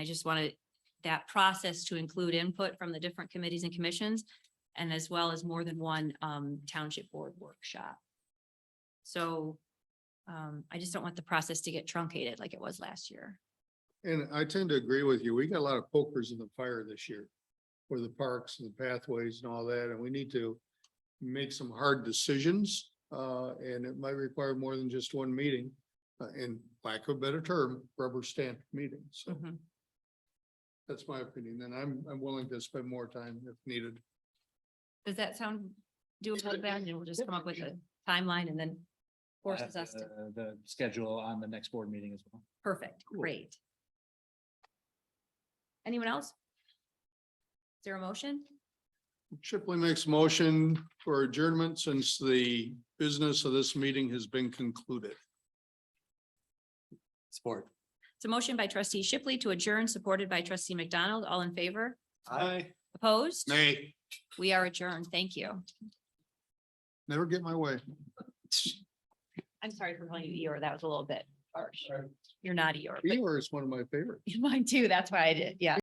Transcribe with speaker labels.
Speaker 1: I just wanted that process to include input from the different committees and commissions and as well as more than one um township board workshop. So um I just don't want the process to get truncated like it was last year.
Speaker 2: And I tend to agree with you. We got a lot of pokers in the fire this year. For the parks and the pathways and all that, and we need to make some hard decisions. Uh, and it might require more than just one meeting, uh, in lack of a better term, rubber stamp meeting. So that's my opinion, and I'm, I'm willing to spend more time if needed.
Speaker 1: Does that sound doable, Ben? And we'll just come up with a timeline and then forces us to,
Speaker 3: Uh, The schedule on the next board meeting as well.
Speaker 1: perfect, great. Anyone else? Is there a motion?
Speaker 2: Shipley makes motion for adjournment since the business of this meeting has been concluded.
Speaker 3: Sport.
Speaker 1: It's a motion by trustee Shipley to adjourn, supported by trustee McDonald. All in favor?
Speaker 2: Aye.
Speaker 1: Opposed?
Speaker 2: Nay,
Speaker 1: We are adjourned. Thank you.
Speaker 2: never get my way.
Speaker 1: I'm sorry for calling you Eeyore. That was a little bit harsh. You're not Eeyore.
Speaker 2: Eeyore is one of my favorites.
Speaker 1: but- Mine too. That's why I did. Yeah.